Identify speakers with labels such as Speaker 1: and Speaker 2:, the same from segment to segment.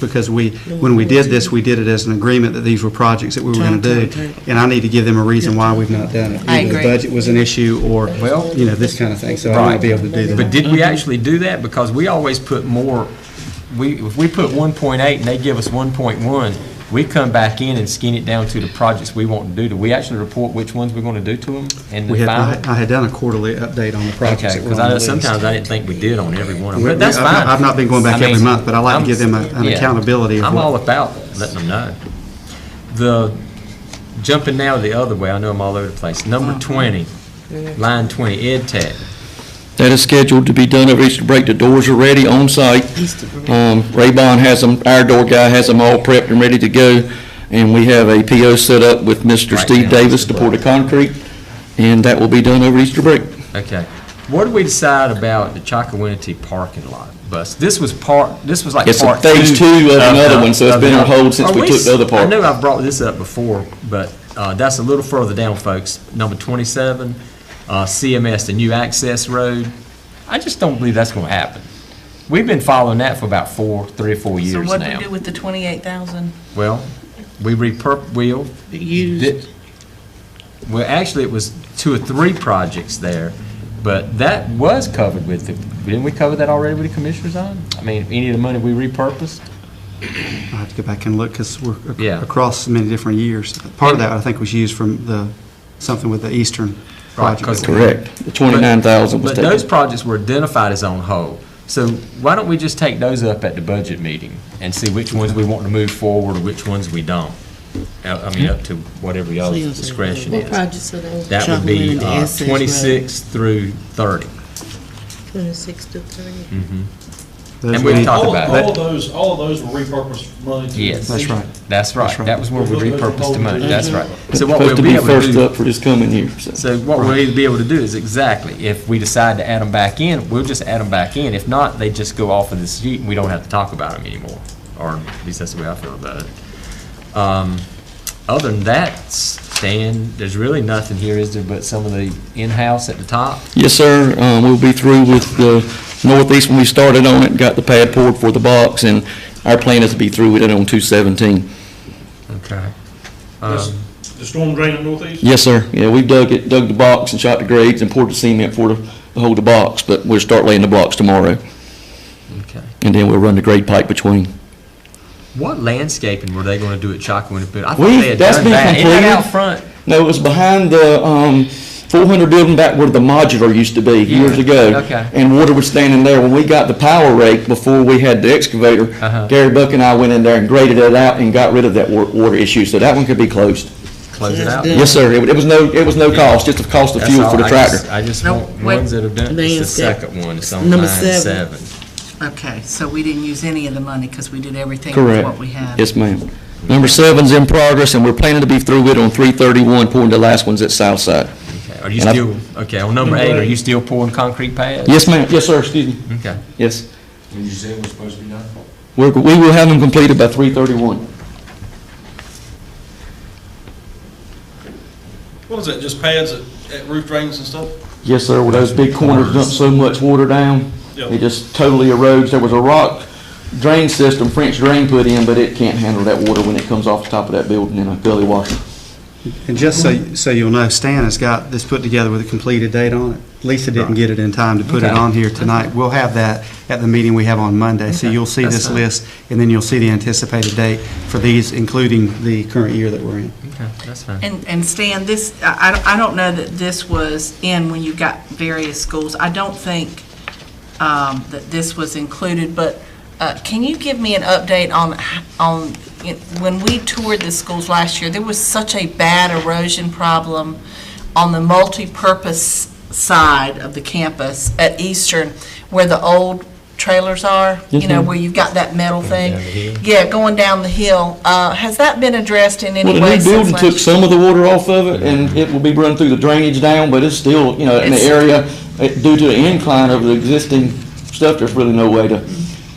Speaker 1: because we, when we did this, we did it as an agreement that these were projects that we were going to do. And I need to give them a reason why we've not done it.
Speaker 2: I
Speaker 1: Either
Speaker 2: agree.
Speaker 1: The budget was an issue or,
Speaker 3: Well-
Speaker 1: you know, this kind of thing, so I might be able to do that.
Speaker 3: But did we actually do that? Because we always put more, we, if we put 1.8 and they give us 1.1, we come back in and skin it down to the projects we want to do. Do we actually report which ones we're going to do to them and
Speaker 1: We
Speaker 3: the
Speaker 1: had, I
Speaker 3: final?
Speaker 1: had- I had done a quarterly update on the projects
Speaker 3: Okay,
Speaker 1: that were
Speaker 3: because
Speaker 1: on the
Speaker 3: I know
Speaker 1: list.
Speaker 3: sometimes I didn't think we did on every one of them,
Speaker 1: We-
Speaker 3: but that's
Speaker 1: I've not-
Speaker 3: fine.
Speaker 1: I've not been going back
Speaker 3: I mean,
Speaker 1: every month, but I like to
Speaker 3: I'm-
Speaker 1: give them a- an
Speaker 3: yeah.
Speaker 1: accountability of
Speaker 3: I'm
Speaker 1: what-
Speaker 3: all about letting them know. The, jumping now the other way, I know I'm all over the place. Number 20, line 20, Ed Tech.
Speaker 4: That is scheduled to be done over Easter break. The doors are ready on site. Um, Raybon has them, our door guy has them all prepped and ready to go. And we have a PO set up with
Speaker 3: Right
Speaker 4: Mr.
Speaker 3: now,
Speaker 4: Steve Davis to
Speaker 3: Mr.
Speaker 4: pour the concrete. And that will be done over Easter break.
Speaker 3: Okay. What do we decide about the Chakawinity parking lot bus? This was part, this was like
Speaker 4: It's a
Speaker 3: part two.
Speaker 4: phase two of another
Speaker 3: the-
Speaker 4: one, so it's
Speaker 3: of
Speaker 4: been
Speaker 3: the-
Speaker 4: on hold since
Speaker 3: Are
Speaker 4: we took the other
Speaker 3: I
Speaker 4: part.
Speaker 3: know I brought this up before, but uh, that's a little further down, folks. Number 27, uh, CMS, the new access road. I just don't believe that's going to happen. We've been following that for about four, three or four
Speaker 2: So
Speaker 3: years
Speaker 2: what do we do
Speaker 3: now.
Speaker 2: with the 28,000
Speaker 3: Well, we repurp, we'll,
Speaker 2: used?
Speaker 3: Well, actually, it was two or three projects there, but that was covered with, the didn't we cover that already with the commissioners on? I mean, any of the money we repurposed?
Speaker 1: I have to go back and look, because we're ac-
Speaker 3: Yeah.
Speaker 1: across many different years. Part of that, I think, was used from the, something with the Eastern
Speaker 3: Right,
Speaker 1: project.
Speaker 3: 'cause-
Speaker 4: Correct. The 29,000 was
Speaker 3: But those
Speaker 4: taken.
Speaker 3: projects were identified as on hold. So why don't we just take those up at the budget meeting and see which ones we want to move forward or which ones we don't? Uh, I mean, up to whatever y'all's discretion
Speaker 5: What
Speaker 3: is.
Speaker 5: projects are those?
Speaker 3: That would
Speaker 5: Chuckman
Speaker 3: be
Speaker 5: and the
Speaker 3: uh,
Speaker 5: Essex Road.
Speaker 3: 26 through 30.
Speaker 5: Twenty-six to thirty.
Speaker 1: Those
Speaker 3: and we've
Speaker 1: we-
Speaker 3: talked-
Speaker 6: All,
Speaker 3: about it.
Speaker 6: all of those, all of those were repurposed money. to-
Speaker 3: Yes.
Speaker 1: That's right.
Speaker 3: That's right.
Speaker 1: That's right.
Speaker 3: That was where we repurposed the money. That's right. So what we'll
Speaker 4: Supposed to
Speaker 3: be
Speaker 4: be
Speaker 3: able to do.
Speaker 4: first up for this coming year, so.
Speaker 3: So what we'll either be able to do is exactly, if we decide to add them back in, we'll just add them back in. If not, they just go off of this sheet and we don't have to talk about them anymore. Or at least that's the way I feel about it. Um, Other than that, Stan, there's really nothing here, is there, but some of the in-house at the top?
Speaker 4: Yes, sir. Um, We'll be through with the northeast when we started on it, got the pad poured for the box, and our plan is to be through with it on 217.
Speaker 3: Okay. Um,
Speaker 6: That's The storm drain in northeast?
Speaker 4: Yes, sir. Yeah, we've dug it, dug the box and shot the grades and poured the cement for the, to hold the box, but we'll start laying the blocks tomorrow,
Speaker 3: Okay.
Speaker 4: and then we'll run the grade pipe between.
Speaker 3: What landscaping were they gonna do at Chalkwood? I thought
Speaker 4: We-
Speaker 3: they had
Speaker 4: that's
Speaker 3: done
Speaker 4: been
Speaker 3: that. Isn't that
Speaker 4: completed.
Speaker 3: out front?
Speaker 4: No, it was behind the, um, four hundred building back where the modular used to be years
Speaker 3: Yeah,
Speaker 4: ago.
Speaker 3: okay.
Speaker 4: And water was standing there. When we got the power rake before we had the excavator,
Speaker 3: Uh-huh.
Speaker 4: Gary Buck and I went in there and graded it out and got rid of that wa- water issue, so that one could be closed.
Speaker 3: Close it out.
Speaker 4: Yes, sir. It wa- it was no, it was no cost, just the cost of
Speaker 3: That's
Speaker 4: fuel
Speaker 3: all.
Speaker 4: for the
Speaker 3: I
Speaker 4: tractor.
Speaker 3: just- I just
Speaker 7: No,
Speaker 3: want
Speaker 7: wait.
Speaker 3: ones that have done, it's the
Speaker 5: Landscape.
Speaker 3: second one, it's on line
Speaker 5: Number
Speaker 3: seven.
Speaker 5: seven.
Speaker 7: Okay, so we didn't use any of the money because we did everything with
Speaker 4: Correct.
Speaker 7: what we had?
Speaker 4: Yes, ma'am. Number seven's in progress, and we're planning to be through it on 331, pouring the last ones at Southside.
Speaker 3: Okay, Are you
Speaker 4: And I-
Speaker 3: still, okay, on number eight, are you still pouring concrete pads?
Speaker 4: Yes, ma'am. Yes, sir, excuse me.
Speaker 3: Okay,
Speaker 4: Yes.
Speaker 8: Did you say it was supposed to be done?
Speaker 4: We're, we will have them completed by 331.
Speaker 6: What is that, just pads at, at roof drains and stuff?
Speaker 4: Yes, sir, where those big corners dump so much water down,
Speaker 6: Yeah.
Speaker 4: it just totally erodes. There was a rock drain system, French drain put in, but it can't handle that water when it comes off the top of that building in a gully washer.
Speaker 1: And just so, so you'll know, Stan has got this put together with a completed date on it. Lisa didn't get it in time to put it
Speaker 3: Okay.
Speaker 1: on here tonight. We'll have that at the meeting we have on Monday. So
Speaker 3: Okay,
Speaker 1: you'll see
Speaker 3: that's
Speaker 1: this
Speaker 3: fine.
Speaker 1: list, and then you'll see the anticipated date for these, including the current year that we're in.
Speaker 3: okay, that's fine.
Speaker 7: And, and Stan, this, I, I don't- I don't know that this was in when you got various schools. I don't think um, that this was included, but uh, can you give me an update on, h- on, you know, when we toured the schools last year, there was such a bad erosion problem on the multipurpose side of the campus at Eastern, where the old trailers are, you know, where you've got that metal thing?
Speaker 3: down the hill.
Speaker 7: Yeah, going down the hill. Uh, Has that been addressed in
Speaker 4: Well,
Speaker 7: any
Speaker 4: the
Speaker 7: way
Speaker 4: new
Speaker 7: since
Speaker 4: building
Speaker 7: last
Speaker 4: took
Speaker 7: year?
Speaker 4: some of the water off of it, and it will be run through the drainage down, but it's still, you know, in the
Speaker 7: It's-
Speaker 4: area, uh, due to the incline of the existing stuff, there's really no way to,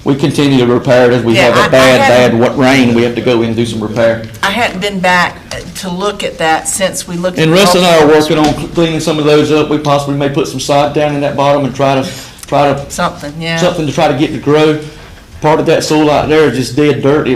Speaker 4: we continue to repair it as we
Speaker 7: Yeah,
Speaker 4: have
Speaker 7: I- I
Speaker 4: a bad,
Speaker 7: haven't-
Speaker 4: bad wa- rain, we have to go in and do some repair.
Speaker 7: I hadn't been back uh, to look at that since we looked. at
Speaker 4: And Russ and I are
Speaker 7: multiple-
Speaker 4: working on cleaning some of those up, we possibly may put some sod down in that bottom and try to, try to,
Speaker 7: Something, yeah.
Speaker 4: something to try to get to grow, part of that soil out there is just dead dirt, It